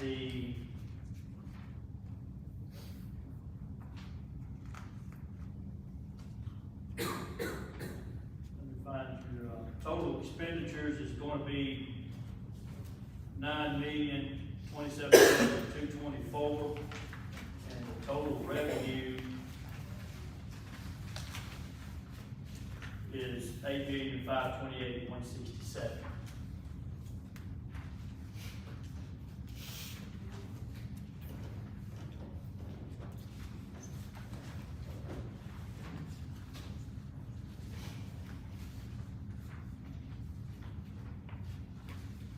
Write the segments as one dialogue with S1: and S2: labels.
S1: the let me find your, uh, total expenditures is gonna be nine million, twenty-seven thousand, two twenty-four, and the total revenue is eight million, five twenty-eight, one sixty-seven.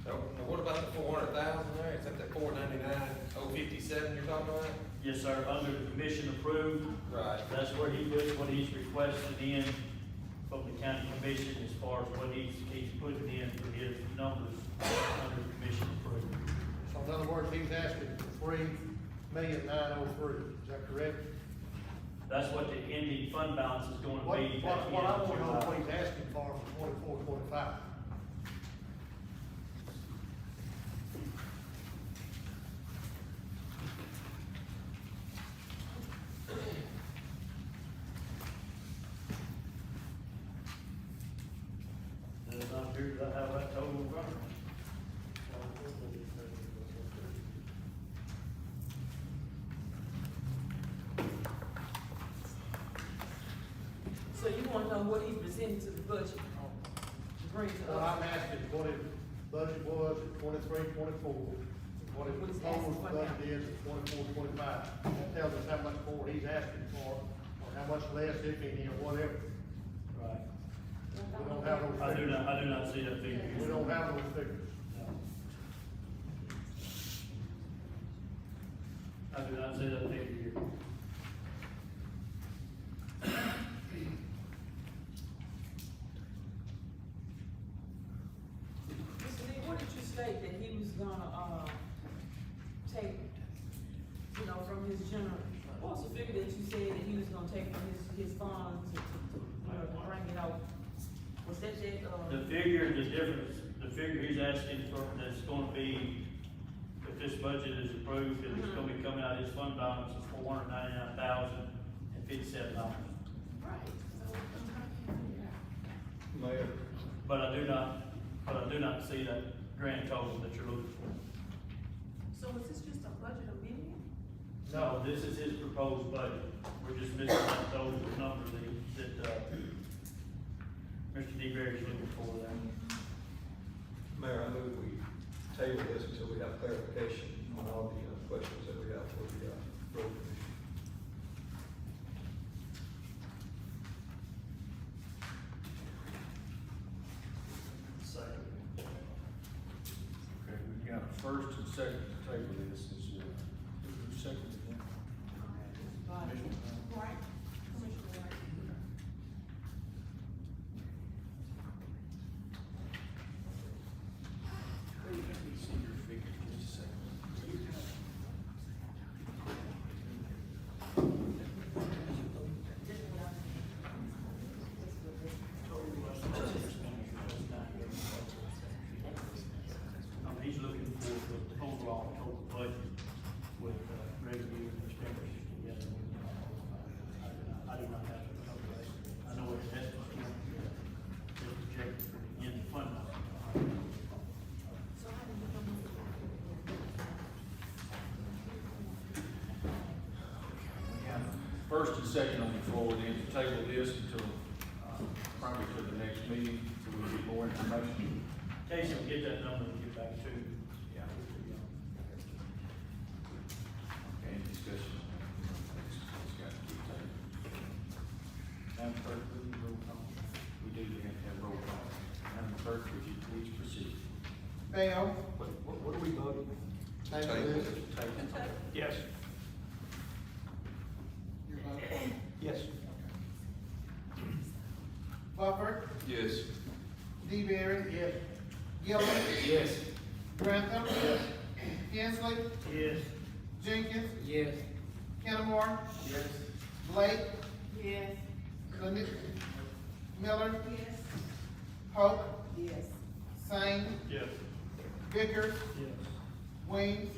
S2: Now, now what about the four hundred thousand there, is that the four ninety-nine, oh fifty-seven you're talking about?
S1: Yes, sir, under the commission approved,
S2: Right.
S1: that's where he puts what he's requested in from the county commission as far as what he's, he's putting in for his numbers under the commission approved.
S3: So in other words, he's asking for three million nine oh three, is that correct?
S1: That's what the ending fund balance is going
S3: What,
S1: to be.
S3: what, what I wanna
S1: oh
S3: know what he's asking for for twenty-four, twenty-five.
S1: Does not appear to have that total in front of me.
S4: So you wanna know what he presented to the budget, to bring to
S3: What
S5: Uh,
S3: I'm
S4: us?
S3: asking is what his budget was at twenty-three, twenty-four, and what his
S4: What he's asking
S3: proposed
S4: for
S3: budget
S4: now.
S3: is at twenty-four, twenty-five. That tells us how much more he's asking for, or how much less, if any, or whatever.
S1: Right.
S3: We don't have those.
S1: I do
S3: figures.
S1: not, I do not see that figure.
S3: We don't have those figures.
S1: No. I do not see that figure here.
S4: Mr. Lee, what did you state that he was gonna, uh, take, you know, from his general? What was the figure that you said that he was gonna take from his, his funds to, to, you know, to bring it out? Was that that,
S1: The
S4: uh,
S1: figure, the difference, the figure he's asking for, that's gonna be, if this budget is approved, and it's gonna be
S4: Mm-hmm.
S1: coming out of his fund balance is four hundred ninety-nine thousand and fifty-seven dollars.
S4: right, so, I'm trying to figure it out.
S6: Mayor,
S1: But I do not, but I do not see that grand total that you're looking for.
S4: So is this just a budget amendment?
S1: No, this is his proposed budget, we're just missing that total number that, that, uh, Mr. D. Berry's looking for there.
S6: Mayor, I move we table this until we have clarification on all the uh, questions that we have for the, uh, road commission.
S1: Second.
S7: Okay, we've got a first and second to table this, is, uh, who seconded that? Commissioner Brown?
S5: Right, Commissioner Wright.
S7: Let me see your figure just a second.
S1: Um, he's looking for the overall total budget with uh, revenue and expenditures together. uh, I do not- I do not have the calculation. I know it's estimate, it's projected for the end of fund.
S5: So how did you come up with
S7: First and second on the floor, then to table this until, uh, probably to the next meeting, so we get more information.
S1: Casey will get that number and get back to you.
S7: Yeah. Okay, any discussion? It's it's got to be tabled. Madam Clerk, will you roll call? We do have to have roll call. Madam Clerk, would you please proceed?
S3: Bell,
S6: What, what- what are we voting?
S3: table
S6: Table.
S3: this.
S7: Table. Yes.
S6: Yes.
S3: Buffer,
S2: Yes.
S3: D. Berry. Yes. Gilman.
S7: Yes.
S3: Grantham. Yes. Kinsley.
S1: Yes.
S3: Jenkins.
S7: Yes.
S3: Kennamore.
S7: Yes.
S3: Blake.
S5: Yes.
S3: Lemi- Miller.
S5: Yes.
S3: Hope.
S5: Yes.
S3: Sane.
S1: Yes.
S3: Vickers.
S1: Yes.
S3: Williams.